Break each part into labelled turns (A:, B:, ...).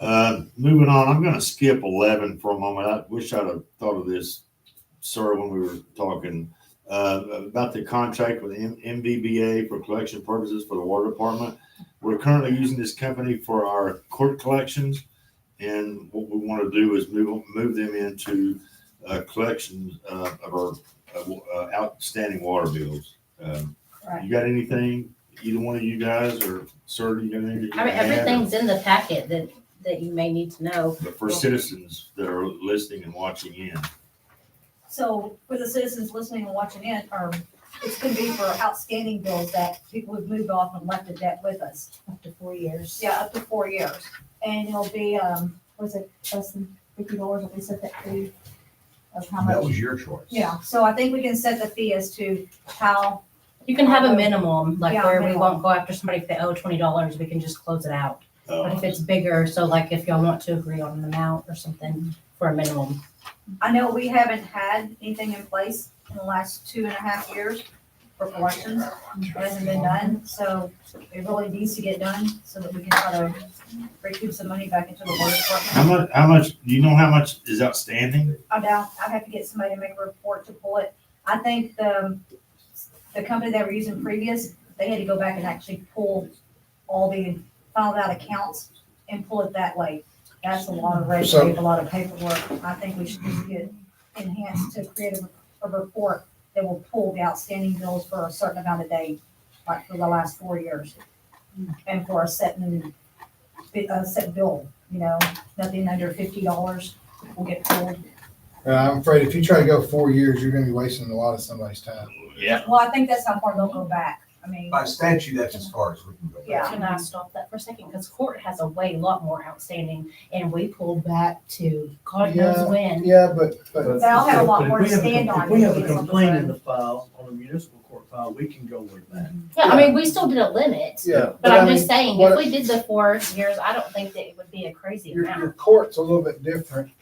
A: Uh, moving on, I'm going to skip 11 for a moment. I wish I'd have thought of this, sir, when we were talking uh, about the contract with M- MVBA for collection purposes for the water department. We're currently using this company for our court collections, and what we want to do is move move them into uh, collections uh, of our uh, uh, outstanding water bills. Um,
B: Right.
A: You got anything? Either one of you guys or sir, you got anything?
B: I mean, everything's in the packet that, that you may need to know.
A: But for citizens that are listening and watching in, uh,
C: So for the citizens listening and watching in, or it's gonna be for outstanding bills that people have moved off and left a debt with us.
D: up to four years.
C: Yeah, up to four years. And it'll be, um, was it less than fifty dollars that we set that fee of how
E: That
C: much?
E: was your choice.
C: Yeah, so I think we can set the fee as to how,
B: You can have a minimum, like
C: Yeah,
B: where we
C: minimum.
B: won't go after somebody if they owe twenty dollars, we can just close it out. But
A: uh,
B: if it's bigger, so like if y'all want to agree on an amount or something for a minimum.
C: I know we haven't had anything in place in the last two and a half years for collections. It hasn't been done, so it really needs to get done so that we can try to recoup some money back into the water department.
A: how much, how much, do you know how much is outstanding?
C: I doubt, I'd have to get somebody to make a report to pull it. I think the, the company they were using previous, they had to go back and actually pull all the filed out accounts and pull it that way. That's a lot of red
F: So-
C: tape, a lot of paperwork. I think we should just get enhanced to create a, a report that will pull the outstanding bills for a certain amount of day, like for the last four years. And for a set, new- a set bill, you know, nothing under fifty dollars will get pulled.
F: Uh, I'm afraid if you try to go four years, you're gonna be wasting a lot of somebody's time.
A: Yeah.
C: Well, I think that's how far they'll go back. I mean,
E: By statute, that's as far as we can go.
C: Yeah.
B: Can I stop that for a second? Because court has a way lot more outstanding and we pulled back to God knows
F: Yeah.
B: when.
F: Yeah, but, but,
C: They'll have a lot
G: But if
C: more to
G: we have a
C: stand
G: com-
C: on
G: If we have a
C: than just on the
G: complaint in
C: phone.
G: the file, on a municipal court file, we can go with that.
B: Yeah, I mean, we still did a limit,
F: yeah.
B: but I'm
F: I mean,
B: just saying, if
F: what-
B: we did the four years, I don't think that it would be a crazy
F: Your,
B: amount.
F: your court's a little bit different.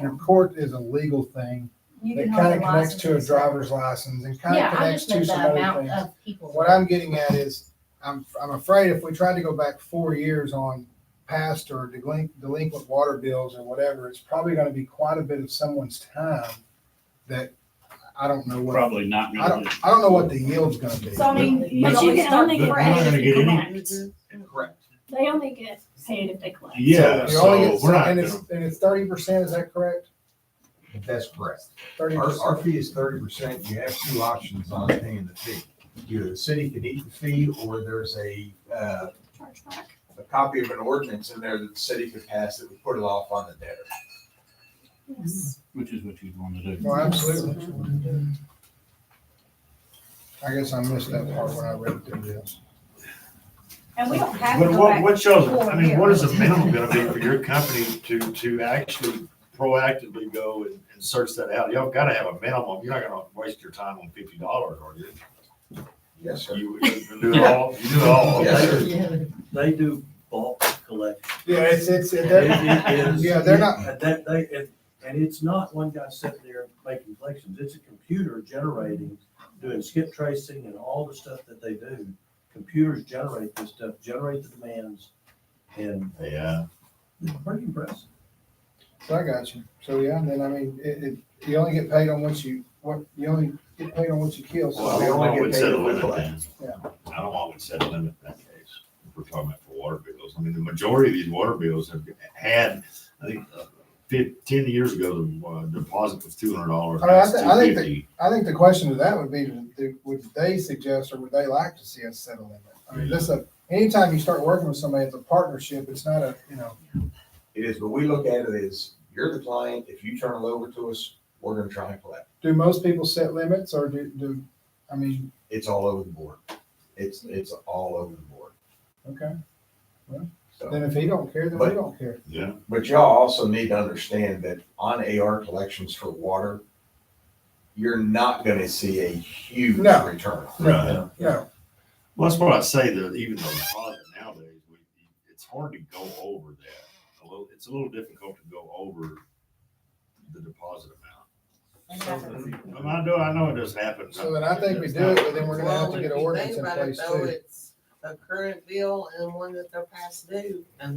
F: Your court is a legal thing
C: You
F: that
C: can
F: kind
C: hold
F: of
C: the
F: connects to a
C: licenses.
F: driver's license and kind
B: Yeah,
F: of
B: I
F: connects
B: just meant
F: to some
B: the
F: other
B: amount
F: things.
B: of people.
F: What I'm getting at is, I'm, I'm afraid if we tried to go back four years on past or delin- delinquent water bills or whatever, it's probably gonna be quite a bit of someone's time that I don't know what,
H: Probably not.
F: I don't, I don't know what the yield's gonna be.
I: So I mean,
A: But-
I: you
A: but
I: only
A: you-
I: can only
A: but we're not
I: collect
A: gonna
I: if you
A: get any-
I: collect.
E: Correct.
I: They only get paid if they collect.
A: Yeah,
F: You only
A: so
F: get-
A: we're not
F: And
A: gonna
F: it's, and it's thirty percent, is that correct?
E: That's correct.
F: Thirty
E: Our, our
F: percent?
E: fee is thirty percent. You have two options on paying the fee. Either the city can eat the fee or there's a, uh,
I: Chargeback.
E: a copy of an ordinance in there that the city could pass that would put it off on the debtor.
I: Yes.
H: Which is what you'd want to do.
F: Well, absolutely. I guess I missed that part when I read through this.
C: And we don't have to
A: But
C: go
A: what,
C: back.
A: what y'all, I mean, what is the
C: Four
A: minimum gonna be for your company to, to actually proactively go and, and search that out? Y'all gotta have a minimum. You're not gonna waste your time on fifty dollars, are you?
E: Yes, sir.
A: You, you do it all, you do it all.
E: Yes, sir.
F: Mm-hmm.
G: They do bulk collection.
F: Yeah, it's, it's, it
G: It
F: doesn't,
G: is-
F: yeah, they're not,
G: and That, they, it- and it's not one guy sitting there making collections, it's a computer generating, doing skip tracing and all the stuff that they do. Computers generate this stuff, generate the demands, and
A: Yeah,
G: it's pretty impressive.
F: I got you. So, yeah, then I mean, it, it, you only get paid on what you, what, you only get paid on what you kill.
A: well, I
F: So
A: don't
E: only
A: want
E: get
A: we'd
E: paid
A: set a
E: if we
A: limit then.
E: collect.
A: I don't want we'd set a limit in that case. If we're talking about for water bills. I mean, the majority of these water bills have had, I think, uh, fif- ten years ago, the uh, deposit was two hundred dollars.
F: I mean, I thi- I think I think the question to that would be, do- would they suggest or would they like to see us set a limit? I mean, this, a- anytime you start working with somebody, it's a partnership. It's not a, you know,
E: It is, but we look at it as, you're the client. If you turn it over to us, we're gonna try and collect.
F: do most people set limits or do, do, I mean,
E: it's all over the board. It's, it's all over the board.
F: okay,
E: So,
F: then if he don't care, then we don't care.
A: Yeah,
E: but y'all also need to understand that on AR collections for water, you're not gonna see a huge
F: No.
E: return.
A: right.
F: Yeah,
A: Well, that's what I say, that even though deposit nowadays, we, it's hard to go over that. A little, it's a little difficult to go over the deposit amount.
B: And that's-
A: And I know, I know it does happen.
F: so then I think we do it, but then we're gonna have to get an ordinance in place too.
J: A current bill and one that they're past due, and